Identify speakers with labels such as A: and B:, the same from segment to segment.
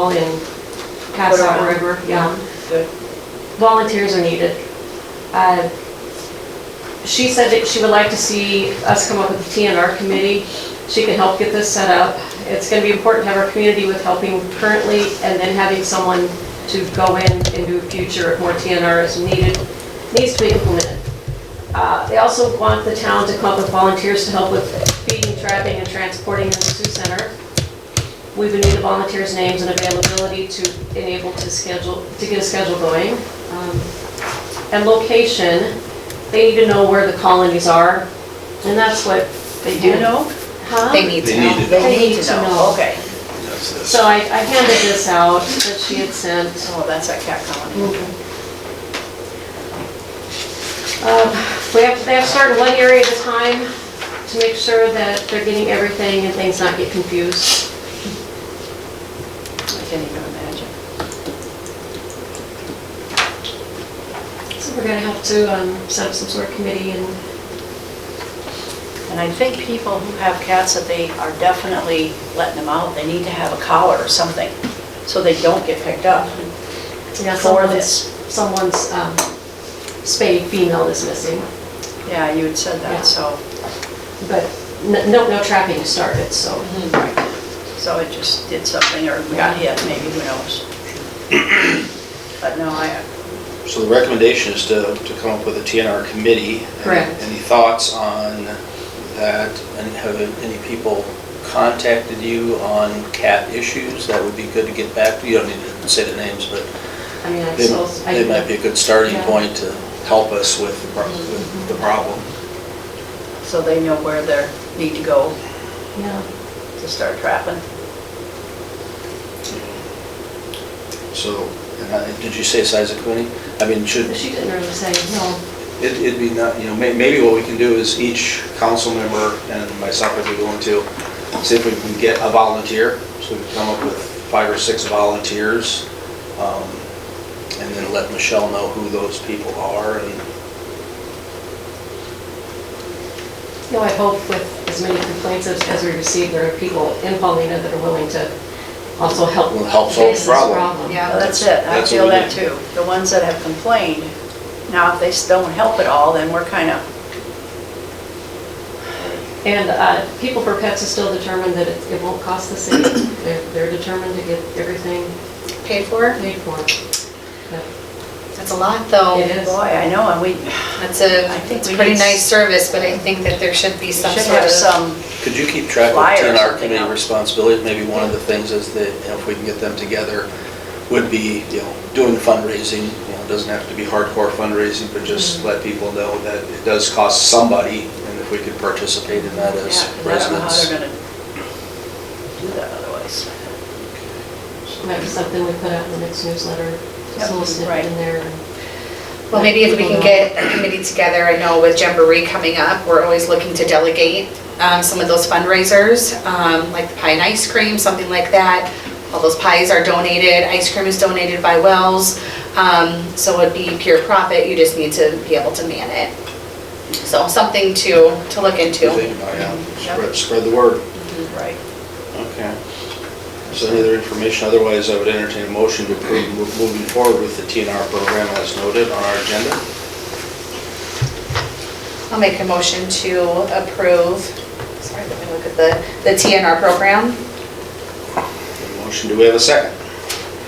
A: all in Castle
B: Colorado.
A: River, yeah.
B: Good.
A: Volunteers are needed. Uh, She said that she would like to see us come up with a TNR committee. She can help get this set up. It's gonna be important to have our community with helping currently and then having someone to go in and do future if more TNR is needed, needs to be implemented. Uh, They also want the town to come up with volunteers to help with feeding, trapping, and transporting in the Sioux Center. We would need the volunteers' names and availability to enable to schedule, to get a schedule going. Um, And location, they need to know where the colonies are, and that's what they do know.
B: know?
A: Huh?
C: They need
D: They
C: to
D: need
C: know.
D: to
B: They need to know, okay.
D: That's this.
A: So I I handed this out that she had sent.
B: Oh, that's that cat colony.
A: Um, We have, they have to start in one area at a time to make sure that they're getting everything and things not get confused.
B: I can't even imagine.
A: So we're gonna have to um, set up some sort of committee and
B: And I think people who have cats, that they are definitely letting them out, they need to have a collar or something, so they don't get picked up.
A: Yeah,
B: for
A: someone's-
B: this.
A: Someone's um, spayed female is missing,
B: Yeah, you had said
A: Yeah.
B: that, so,
A: but n- no, no trapping started, so.
B: so it just did something, or we got hit, maybe, who knows? But no, I,
D: So the recommendation is to, to come up with a TNR committee.
A: Correct.
D: Any thoughts on that? And have any people contacted you on cat issues? That would be good to get back to. You don't need to say the names, but
A: I mean, I
D: they
A: suppose. I-
D: might- they might be a good starting
A: Yeah. Mm-hmm.
D: point to help us with the pro- with the problem.
B: so they know where they need to go
A: Yeah.
B: to start trapping.
D: So, and I- did you say size of committee? I mean, should,
A: But She didn't really say, no.
D: It- It'd be not, you know, may- maybe what we can do is each council member and myself would be willing to, see if we can get a volunteer. So we can come up with five or six volunteers. um, And then let Michelle know who those people are and
A: No, I hope with as many complaints as as we receive, there are people in Paulina that are willing to also help.
D: Will help solve the
A: face this
D: problem.
B: Yeah, that's it, I
D: That's what
B: feel
D: we
B: that
D: need.
B: too. The ones that have complained, now if they still don't help at all, then we're kind of,
A: And uh, People for Pets is still determined that it it won't cost the city. They're they're determined to get everything
C: Paid for?
A: paid for. But
C: That's a lot, though.
A: It is.
B: boy, I know, and we
C: That's a,
B: I think
C: it's
B: we
C: a pretty
B: need
C: nice
B: s-
C: service, but I think that there should be
B: we
C: some
B: should
C: sort
B: have
C: of.
B: some
D: Could you keep track
B: Flyer or
D: of TNR
B: something
D: committee
B: out.
D: responsibilities? Maybe one of the things is that, you know, if we can get them together, would be, you know, doing fundraising. You know, it doesn't have to be hardcore fundraising, but
B: Mm-hmm.
D: just let people know that it does cost somebody, and if we could participate in that
B: Yeah,
D: as
B: 'cause I don't know how
D: residents.
B: they're gonna do that otherwise.
A: Might be something we put out in the next newsletter, just a little
B: Yep,
A: snippet
B: right.
A: in there. and-
C: Well, maybe if we can get a committee together, I know with Jamboree coming up, we're always looking to delegate um, some of those fundraisers, um, like the pie and ice cream, something like that. All those pies are donated, ice cream is donated by Wells, um, so it'd be pure profit, you just need to be able to man it. So something to, to look into.
D: You think about, oh, yeah,
B: Mm-hmm.
D: Spread, spread the word.
B: Right.
D: Okay. So any other information? Otherwise, I would entertain a motion to approve mo- moving forward with the TNR program as noted on our agenda.
C: I'll make a motion to approve, sorry, let me look at the, the TNR program.
D: Motion, do we have a second?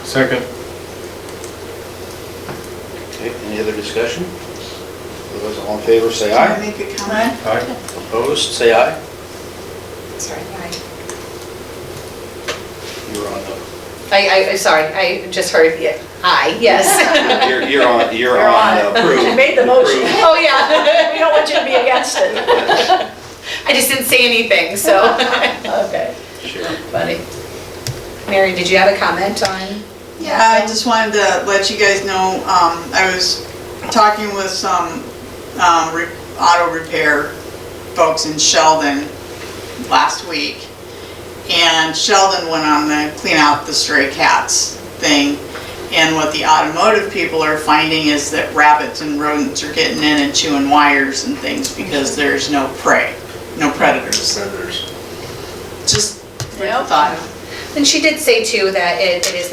E: Second.
D: Okay, any other discussion? Otherwise, all in favor, say aye.
F: Make a
B: Come
F: comment?
B: on.
E: Aye.
D: Opposed, say aye.
C: Sorry, I,
D: You're on, the-
C: I, I, sorry, I just heard, yeah, aye, yes.
D: you're- you're on, you're
B: You're on
D: on
B: it.
D: approved.
B: You made the motion.
D: Approved.
C: Oh, yeah,
B: We don't want you to be against it.
C: I just didn't say anything, so.
B: Okay,
D: Sure.
B: buddy.
C: Mary, did you have a comment on?
F: Yeah, I just wanted to let you guys know, um, I was talking with some, um, re- auto repair folks in Sheldon last week. And Sheldon went on the clean out the stray cats thing. And what the automotive people are finding is that rabbits and rodents are getting in and chewing wires and things because there's no prey, no predators.
D: Predators.
F: Just,
B: Yep.
F: thought.
C: And she did say too that it it is